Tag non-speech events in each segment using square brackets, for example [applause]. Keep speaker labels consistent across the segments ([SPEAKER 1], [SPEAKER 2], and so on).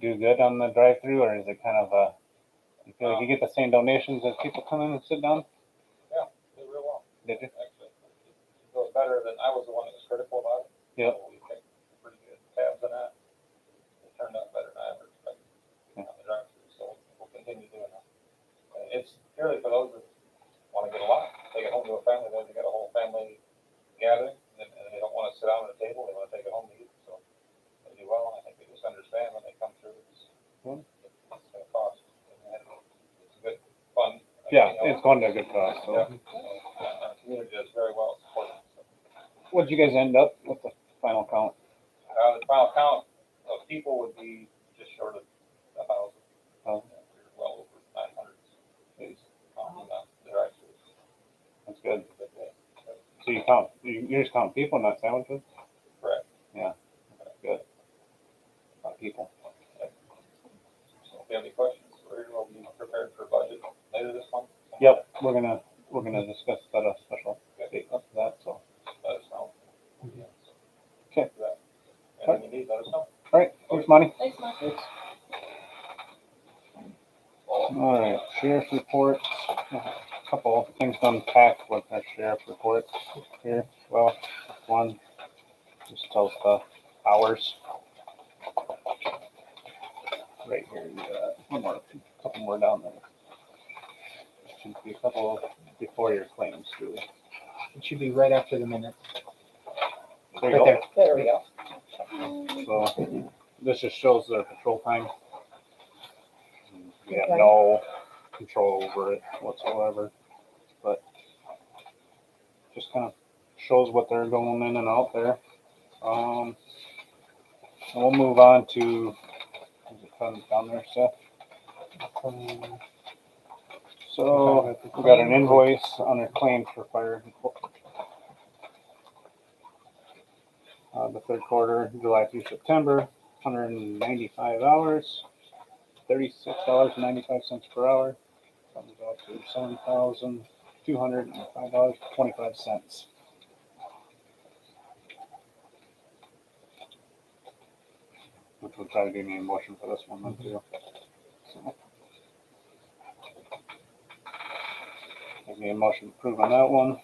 [SPEAKER 1] do good on the drive-through, or is it kind of a? You feel like you get the same donations as people come in and sit down?
[SPEAKER 2] did real well,
[SPEAKER 1] Did you?
[SPEAKER 2] actually. It was better than, I was the one that was critical about it.
[SPEAKER 1] Yep.
[SPEAKER 2] So We kept pretty good tabs on that. It turned out better than I ever expected.
[SPEAKER 1] Yeah.
[SPEAKER 2] On the drive-through, so we'll continue doing that. And it's purely for those that wanna get a lot, take it home to a family, then they got a whole family gathering, and then- and they don't wanna sit down at a table, they wanna take it home to eat, so. They do well, and I think they just understand when they come through, it's,
[SPEAKER 1] Hmm.
[SPEAKER 2] it's gonna cost. and It's good fun.
[SPEAKER 1] Yeah,
[SPEAKER 2] You know,
[SPEAKER 1] it's going to a good cost. So,
[SPEAKER 2] yeah. Our community does very well Uh, supporting. us.
[SPEAKER 1] what did you guys end up with the final count?
[SPEAKER 2] Uh, the final count of people would be just short of a thousand.
[SPEAKER 1] Oh.
[SPEAKER 2] We were Well over nine hundred. It's, um, uh, There are actually.
[SPEAKER 1] That's good.
[SPEAKER 2] but, uh,
[SPEAKER 1] So you count, you, you just count people, not sandwiches.
[SPEAKER 2] Correct.
[SPEAKER 1] That's good. Not people.
[SPEAKER 2] So if you have any questions, we're, we'll be prepared for budget later this month.
[SPEAKER 1] Yep, we're gonna we're gonna discuss that a special date after that. So, all
[SPEAKER 2] Let us know.
[SPEAKER 1] Okay.
[SPEAKER 2] And if you need, let us know.
[SPEAKER 1] right, thanks, money.
[SPEAKER 3] Thanks, Mike.
[SPEAKER 1] All right, sheriff's report, a couple things to unpack with our sheriff report here. Well, one, just tells the hours. Right here, you got one more, couple more down there. Should be a couple before your claims, really.
[SPEAKER 4] It should be right after the minute.
[SPEAKER 1] There you
[SPEAKER 4] Right
[SPEAKER 1] go.
[SPEAKER 4] there.
[SPEAKER 3] There we go.
[SPEAKER 1] So this just shows their patrol time. We have
[SPEAKER 3] Okay.
[SPEAKER 1] no control over it whatsoever, but just kind of shows what they're going in and out there. Um, and we'll move on to, is it down- down there, Seth?
[SPEAKER 4] Um,
[SPEAKER 1] So we got an invoice on a claim for fire. Uh, the third quarter, July through September, hundred and ninety-five hours, thirty-six dollars and ninety-five cents per hour. Comes out to seven thousand two hundred and five dollars twenty-five cents. Which will try to give me a motion for this one then too. So, Give me a motion to approve on that one.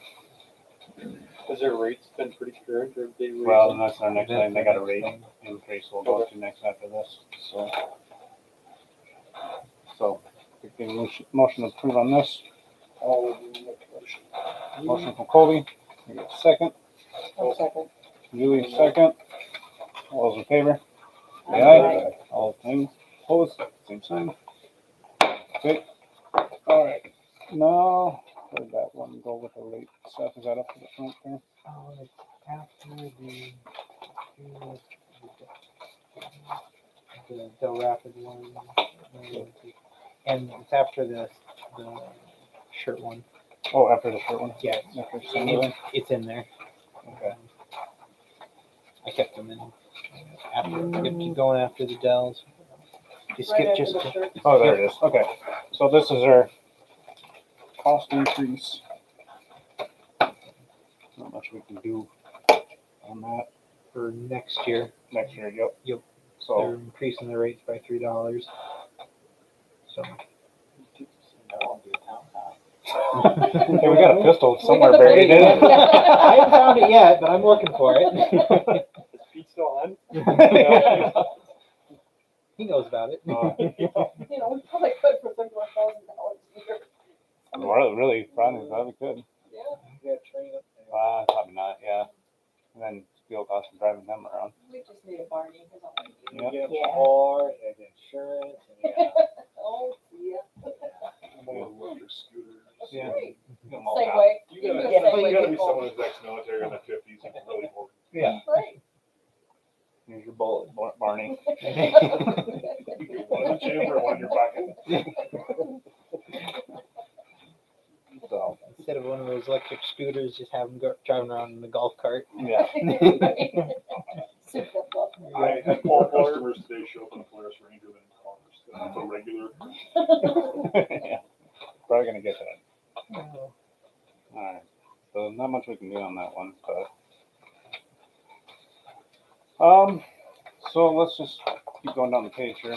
[SPEAKER 5] Has their rates been pretty current or have they? raised
[SPEAKER 1] Well,
[SPEAKER 5] them?
[SPEAKER 1] and that's our next
[SPEAKER 4] That's
[SPEAKER 1] thing, they
[SPEAKER 4] the
[SPEAKER 1] got a
[SPEAKER 4] next
[SPEAKER 1] rate
[SPEAKER 4] thing.
[SPEAKER 1] increase we'll go to next after this, so. So, we can motion- motion to approve on this, motion from Colby, we got a second,
[SPEAKER 3] One second.
[SPEAKER 1] Julie second. All those in favor? Say
[SPEAKER 3] Aye.
[SPEAKER 1] aye. All things opposed, same sign. Okay, all right, now, where'd that one go with the rate stuff, is that up to the front there?
[SPEAKER 4] oh, it's after the- The, the rapid one. And it's after the, the shirt one.
[SPEAKER 1] Oh, after the short one,
[SPEAKER 4] Yeah,
[SPEAKER 1] after the
[SPEAKER 4] And
[SPEAKER 1] Sunday one,
[SPEAKER 4] it's, it's in there.
[SPEAKER 1] okay.
[SPEAKER 4] I kept them in. After, I keep going after the Dells. You skip just, to-
[SPEAKER 1] Oh, there it is. Okay. So this is our cost increase. Not much we can do on that
[SPEAKER 4] for next year,
[SPEAKER 1] next year. Yep.
[SPEAKER 4] Yep. they're
[SPEAKER 1] So
[SPEAKER 4] increasing the rates by three dollars. So.
[SPEAKER 1] hey, we got a pistol somewhere
[SPEAKER 3] got the
[SPEAKER 1] buried in it.
[SPEAKER 4] I
[SPEAKER 5] [laughs]
[SPEAKER 4] haven't found it yet, but I'm looking for
[SPEAKER 5] Is Pete still on?
[SPEAKER 4] it. [laughs] He knows about it.
[SPEAKER 3] [laughs]
[SPEAKER 1] [laughs] Uh,
[SPEAKER 3] You know, we probably could for thirty-one thousand dollars a year.
[SPEAKER 1] well, really, probably probably could.
[SPEAKER 3] Yeah,
[SPEAKER 1] Uh, probably not. Yeah. And then fuel costs and driving them around.
[SPEAKER 3] we just need a Barney. we don't need you.
[SPEAKER 1] Yeah.
[SPEAKER 3] Yeah.
[SPEAKER 4] Or insurance.
[SPEAKER 3] [laughs] Oh, yeah.
[SPEAKER 1] Yeah.
[SPEAKER 3] Great.
[SPEAKER 1] Get 'em all out.
[SPEAKER 3] Segway.
[SPEAKER 5] You
[SPEAKER 3] Give
[SPEAKER 5] gotta,
[SPEAKER 3] me a
[SPEAKER 5] you
[SPEAKER 3] segue,
[SPEAKER 5] gotta be
[SPEAKER 3] people.
[SPEAKER 5] someone who's ex-military in the fifties, you can really hold.
[SPEAKER 4] Yeah.
[SPEAKER 3] Great.
[SPEAKER 5] [laughs]
[SPEAKER 1] Here's your bullet, Bar- Barney.
[SPEAKER 5] One in the chamber, one in
[SPEAKER 3] [laughs]
[SPEAKER 5] your pocket.
[SPEAKER 1] So
[SPEAKER 4] Instead of one of those electric scooters, just have them go, driving around in the golf cart.
[SPEAKER 1] yeah. [laughs]
[SPEAKER 3] Super fluff.
[SPEAKER 5] I had four customers today show up in a Polaris Ranger than Congress, that's a regular.
[SPEAKER 3] [laughs]
[SPEAKER 1] yeah. Probably gonna get that.
[SPEAKER 4] Oh.
[SPEAKER 1] Alright, so not much we can do on that one, but. Um, so let's just keep going down the page here.